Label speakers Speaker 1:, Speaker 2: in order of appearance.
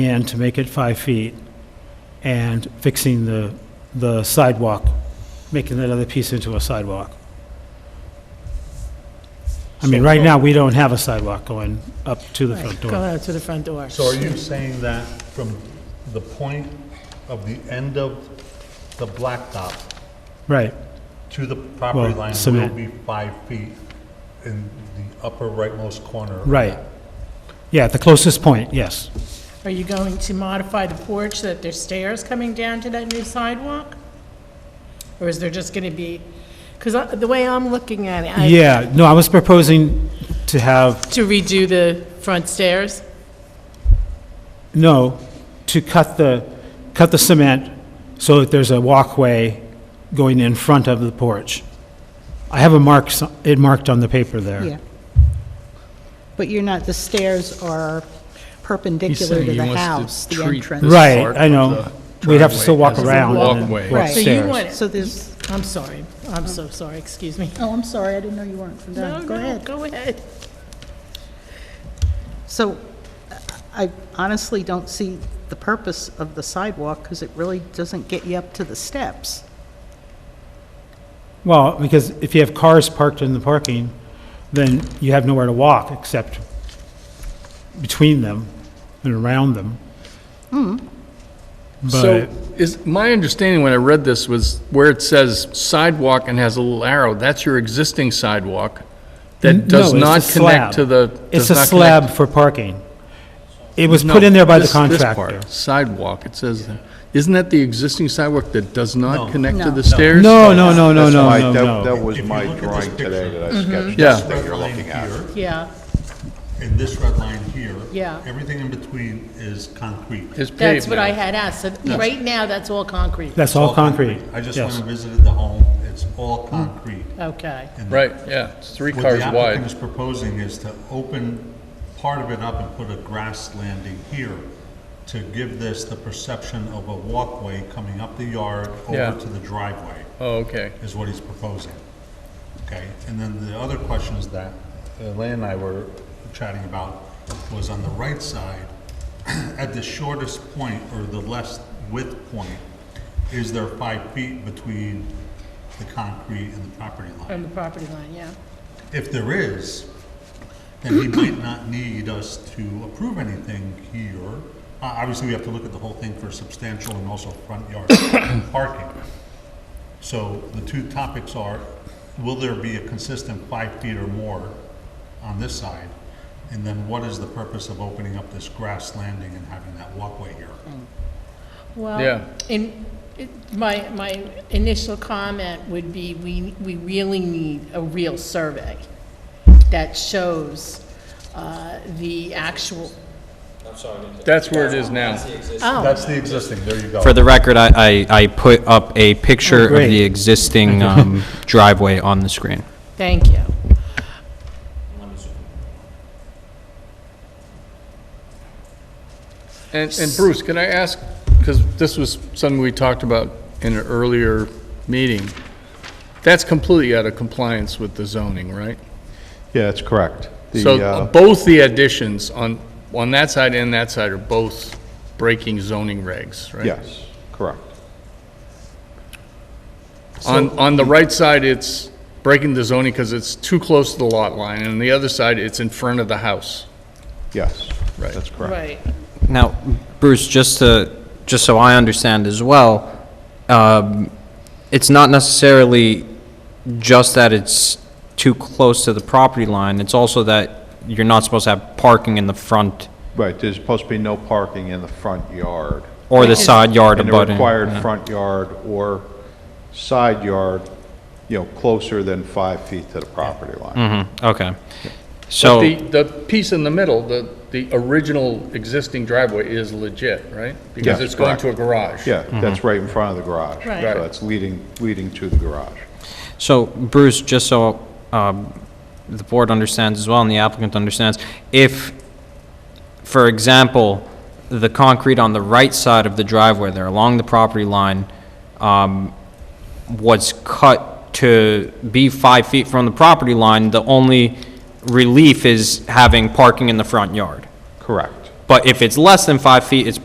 Speaker 1: and to make it five feet, and fixing the, the sidewalk, making that other piece into a sidewalk. I mean, right now, we don't have a sidewalk going up to the front
Speaker 2: Go
Speaker 1: door.
Speaker 2: out to the front door.
Speaker 3: So are you saying that from the point of the end of the blacktop
Speaker 1: Right,
Speaker 3: to the property
Speaker 1: Well,
Speaker 3: line will
Speaker 1: cement.
Speaker 3: be five feet in the upper rightmost corner? of
Speaker 1: right.
Speaker 3: that?
Speaker 1: Yeah, at the closest point, yes.
Speaker 2: Are you going to modify the porch so that there's stairs coming down to that new sidewalk? Or is there just going to be, because the way I'm looking at it, I-
Speaker 1: Yeah, no, I was proposing to have,
Speaker 2: to redo the front stairs?
Speaker 1: no, to cut the, cut the cement so that there's a walkway going in front of the porch. I have a mark, s- it marked on the paper there.
Speaker 4: Yeah. But you're not, the stairs are perpendicular
Speaker 5: saying
Speaker 4: to
Speaker 5: he
Speaker 4: the
Speaker 5: wants to
Speaker 4: house, the
Speaker 5: treat
Speaker 4: entrance.
Speaker 5: this
Speaker 1: Right,
Speaker 5: part
Speaker 1: I
Speaker 5: of
Speaker 1: know.
Speaker 5: the
Speaker 1: We'd have to still walk
Speaker 5: driveway as a
Speaker 1: around and then
Speaker 5: walkway.
Speaker 1: walk
Speaker 4: Right.
Speaker 2: So you
Speaker 1: upstairs.
Speaker 2: want it,
Speaker 4: So there's,
Speaker 2: I'm sorry, I'm so sorry, excuse me.
Speaker 4: oh, I'm sorry, I didn't know you weren't
Speaker 2: No,
Speaker 4: done. Go
Speaker 2: no,
Speaker 4: ahead.
Speaker 2: go ahead.
Speaker 4: So I honestly don't see the purpose of the sidewalk because it really doesn't get you up to the steps.
Speaker 1: Well, because if you have cars parked in the parking, then you have nowhere to walk except between them and around them.
Speaker 5: So
Speaker 2: Mm-hmm.
Speaker 1: But,
Speaker 5: is, my understanding when I read this was where it says sidewalk and has a little arrow, that's your existing sidewalk
Speaker 1: N-
Speaker 5: that does
Speaker 1: no, it's
Speaker 5: not
Speaker 1: the slab.
Speaker 5: connect to the.
Speaker 1: it's a
Speaker 5: does not
Speaker 1: slab
Speaker 5: connect-
Speaker 1: for parking. It was
Speaker 5: No,
Speaker 1: put in there by the
Speaker 5: this- this part,
Speaker 1: contractor.
Speaker 5: Sidewalk, it says there. Isn't that the existing sidewalk that does not connect to
Speaker 4: No.
Speaker 5: the stairs?
Speaker 1: No, no, no, no,
Speaker 6: That's
Speaker 1: no,
Speaker 6: my-
Speaker 1: no,
Speaker 6: that-
Speaker 1: no.
Speaker 6: That was
Speaker 3: If you
Speaker 6: my
Speaker 3: look at this
Speaker 6: drawing today
Speaker 3: picture-
Speaker 6: that I sketched,
Speaker 5: Yeah.
Speaker 6: that's what
Speaker 3: Red
Speaker 6: you're
Speaker 3: line
Speaker 6: looking at.
Speaker 3: here
Speaker 2: Yeah,
Speaker 3: And this red line here.
Speaker 2: Yeah.
Speaker 3: Everything in between is concrete.
Speaker 5: It's paved
Speaker 2: that's what
Speaker 5: now.
Speaker 2: I had asked, So right now, that's all concrete.
Speaker 1: That's all concrete,
Speaker 3: I just went
Speaker 1: yes.
Speaker 3: and visited the home, it's all concrete.
Speaker 2: Okay,
Speaker 3: And
Speaker 5: Right, yeah, it's three
Speaker 3: What
Speaker 5: cars
Speaker 3: the applicant
Speaker 5: wide.
Speaker 3: is proposing is to open part of it up and put a grass landing here to give this the perception of a walkway coming up the yard
Speaker 5: Yeah.
Speaker 3: over to the driveway,
Speaker 5: Oh, okay.
Speaker 3: is what he's proposing. Okay, and then the other questions that Elaine and I were chatting about was on the right side, at the shortest point or the less width point, is there five feet between the concrete and the property line?
Speaker 2: from the property line, yeah.
Speaker 3: If there is, then he might not need us to approve anything here. Uh, Obviously, we have to look at the whole thing for substantial and also front yard parking. So the two topics are, will there be a consistent five feet or more on this side? And then what is the purpose of opening up this grass landing and having that walkway here?
Speaker 5: Yeah.
Speaker 2: Well, in, it- my, my initial comment would be, we, we really need a real survey that shows uh, the actual,
Speaker 5: That's where it is now.
Speaker 2: oh,
Speaker 3: That's the existing, there you go.
Speaker 7: For the record, I, I, I put up a picture of
Speaker 1: Great.
Speaker 7: the existing um, driveway on the screen.
Speaker 2: thank you.
Speaker 5: And, and Bruce, can I ask, because this was something we talked about in an earlier meeting, that's completely out of compliance with the zoning, right?
Speaker 6: Yeah, that's correct. The,
Speaker 5: So
Speaker 6: uh,
Speaker 5: both the additions on, on that side and that side are both breaking zoning regs, right?
Speaker 6: Yes, correct.
Speaker 5: On, on the right side, it's breaking the zoning because it's too close to the lot line, and on the other side, it's in front of the house.
Speaker 6: Yes,
Speaker 5: Right.
Speaker 6: that's correct.
Speaker 2: Right.
Speaker 7: Now, Bruce, just to, just so I understand as well, um, it's not necessarily just that it's too close to the property line, it's also that you're not supposed to have parking in the front
Speaker 6: Right, there's supposed to be no parking in the front yard.
Speaker 7: or the side yard
Speaker 6: In the
Speaker 7: abutting.
Speaker 6: required front yard or side yard, you know, closer than five feet to the property line.
Speaker 5: Mm-hmm.
Speaker 7: Mhm, Okay.
Speaker 5: But
Speaker 7: So,
Speaker 5: the, the piece in the middle, the, the original existing driveway is legit, right? Because
Speaker 6: Yes,
Speaker 5: it's going to a
Speaker 6: correct.
Speaker 5: garage.
Speaker 6: Yeah,
Speaker 5: Mm-hmm.
Speaker 6: that's right in front of the garage.
Speaker 2: Right.
Speaker 6: So that's leading, leading to the garage.
Speaker 7: So Bruce, just so um, the board understands as well and the applicant understands, if, for example, the concrete on the right side of the driveway there, along the property line, um, was cut to be five feet from the property line, the only relief is having parking in the front yard.
Speaker 6: Correct.
Speaker 7: But if it's less than five feet, it's